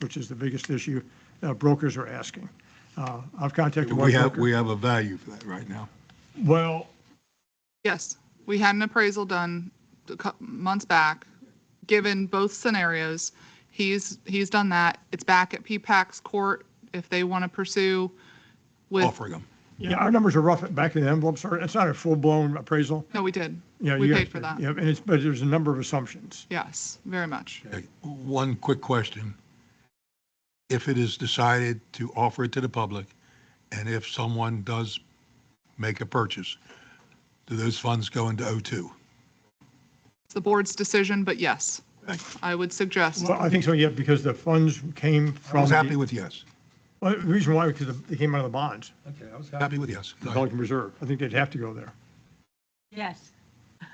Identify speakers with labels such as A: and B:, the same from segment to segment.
A: which is the biggest issue uh, brokers are asking. Uh, I've contacted one
B: We have, we
A: broker.
B: have a value for that right now.
A: Well,
C: Yes, we had an appraisal done a cou- months back, given both scenarios. He's, he's done that. It's back at P-PAC's court if they want to pursue with,
B: Offer them.
A: yeah, our numbers are rough, back in the envelope, sorry, it's not a full-blown appraisal.
C: no, we did.
A: Yeah,
C: We
A: you
C: paid
A: guys-
C: for that.
A: Yeah, and it's, but there's a number of assumptions.
C: Yes, very much.
B: Okay, One quick question. If it is decided to offer it to the public, and if someone does make a purchase, do those funds go into O2?
C: It's the board's decision, but yes, I would suggest.
A: Well, I think so, yeah, because the funds came
B: I
A: from.
B: was
A: the-
B: happy with yes.
A: Well, The reason why, because the- they came out of the bonds,
D: Okay, I was
B: Happy with yes.
A: the Pelican Reserve. I think they'd have to go there.
E: Yes.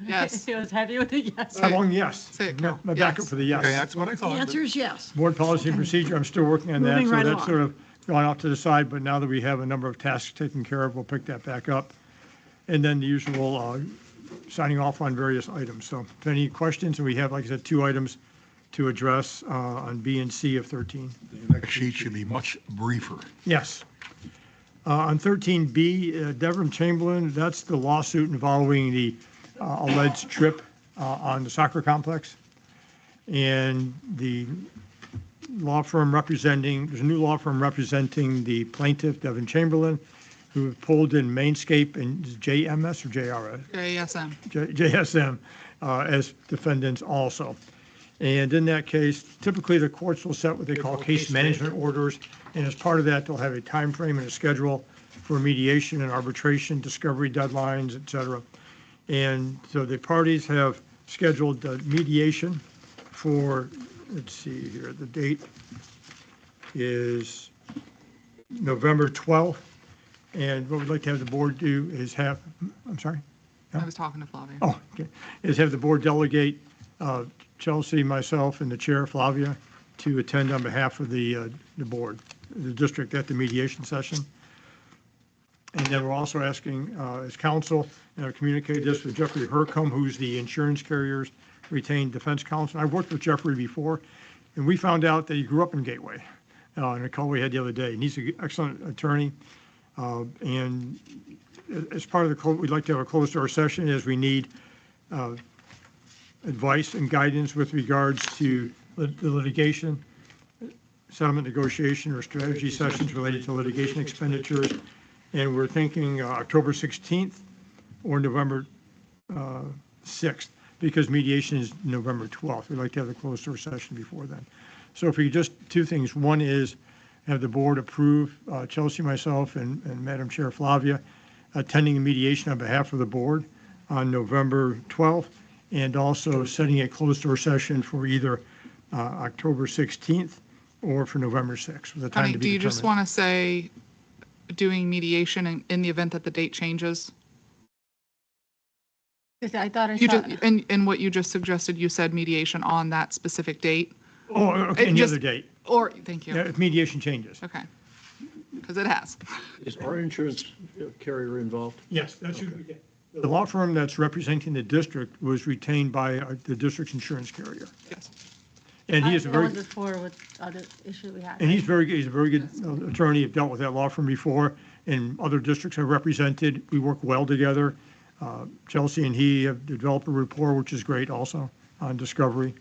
C: Yes. Uh,
E: He was happy with it, yes.
A: How long, yes.
C: Say it,
A: No,
C: Carol.
A: My backup
C: Yes.
A: for the
B: Okay,
A: yes.
B: that's what I
E: The
B: thought.
E: answer is yes.
A: Board policy and procedure, I'm still working on that.
E: Moving
A: So
E: right
A: that's
E: along.
A: sort of gone off to the side, but now that we have a number of tasks taken care of, we'll pick that back up. And then the usual uh, signing off on various items. So if any questions, we have, like I said, two items to address uh, on B and C of 13.
B: The next sheet should be much briefer.
A: Yes. Uh, On 13B, uh, Devon Chamberlain, that's the lawsuit involving the uh, alleged trip uh, on the soccer complex. And the law firm representing, there's a new law firm representing the plaintiff, Devon Chamberlain, who pulled in Mainscape and JMS or JRS?
C: JSM.
A: J- JSM uh, as defendants also. And in that case, typically the courts will set what they call case management orders, and as part of that, they'll have a time frame and a schedule for mediation and arbitration, discovery deadlines, et cetera. And so the parties have scheduled uh, mediation for, let's see here, the date is November 12th. And what we'd like to have the board do is have, I'm sorry?
C: I was talking to Flavia.
A: Oh, okay. Is have the board delegate uh, Chelsea, myself, and the chair, Flavia, to attend on behalf of the, uh, the board, the district at the mediation session. And then we're also asking, uh, as counsel, and I've communicated this with Jeffrey Hercom, who's the insurance carrier's retained defense counsel. I've worked with Jeffrey before, and we found out that he grew up in Gateway, uh, in a call we had the other day. And he's an excellent attorney. uh, And as part of the, clo- we'd like to have a closed door session as we need uh, advice and guidance with regards to lit- the litigation, settlement negotiation or strategy sessions related to litigation expenditures. And we're thinking uh, October 16th or November uh, 6th, because mediation is November 12th. We'd like to have a closed door session before then. So if we could just, two things. One is have the board approve uh, Chelsea, myself, and and Madam Chair Flavia attending the mediation on behalf of the board on November 12th, and also setting a closed-door session for either uh, October 16th or for November 6th, with a time
C: Honey,
A: to
C: do
A: be
C: you just
A: determined.
C: want to say doing mediation in, in the event that the date changes?
E: I thought I
C: You
E: saw,
C: just, and, and what you just suggested, you said mediation on that specific date?
A: Oh, okay,
C: It
A: any
C: just-
A: other date,
C: Or, thank
A: Yeah,
C: you.
A: if mediation changes.
C: Okay. Because it has.
F: Is our insurance carrier involved?
A: Yes, that's, the law firm that's representing the district was retained by uh, the district's insurance carrier.
C: Yes.
A: And he
E: I
A: is a
E: that
A: very.
E: was before with other issue we had.
A: And he's very, he's a very good uh, attorney, I've dealt with that law firm before, and other districts I've represented, we work well together. Uh, Chelsea and he have developed a rapport, which is great also, on discovery.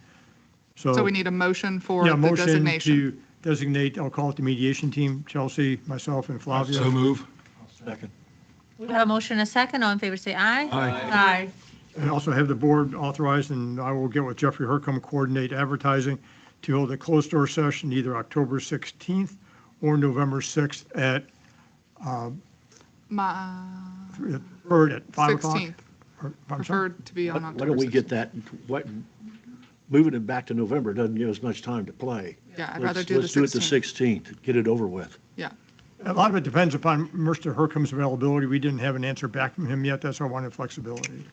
A: So.
C: So we need a motion for
A: Yeah,
C: the
A: motion
C: designation.
A: to designate, I'll call it the mediation team, Chelsea, myself, and Flavia.
B: So move.
F: Second.
G: We got a motion and a second. All in favor, say aye.
E: Aye.
A: And also have the board authorized, and I will get with Jeffrey Hercom, coordinate advertising to hold a closed door session either October 16th or November 6th at,
C: My,
A: heard at 5 o'clock.
C: 16th,
A: Or- I'm sorry?
C: preferred to be on
F: Why
C: October.
F: don't we get
C: 16th.
F: that, what, moving it back to November doesn't give us much time to play.
C: Yeah, I'd
F: Let's-
C: rather do the
F: Let's do it the
C: 16th.
F: 16th, get it over with.
C: Yeah.
A: A lot of it depends upon Mr. Hercom's availability. We didn't have an answer back from him yet. That's why I wanted flexibility.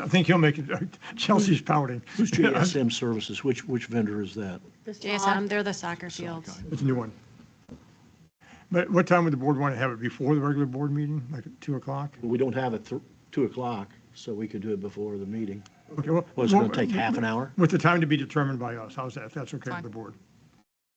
A: I think he'll make it. Chelsea's pouting.
F: Who's JSM Services, which, which vendor is that?
E: This
G: JSM, they're the soccer fields.
A: It's a new one. But what time would the board want to have it? Before the regular board meeting, like at 2 o'clock?
F: We don't have it thr- 2 o'clock, so we could do it before the meeting.
A: Okay, well.
F: Well, it's going to take half an hour.
A: With the time to be determined by us. How's that? If that's okay with the board.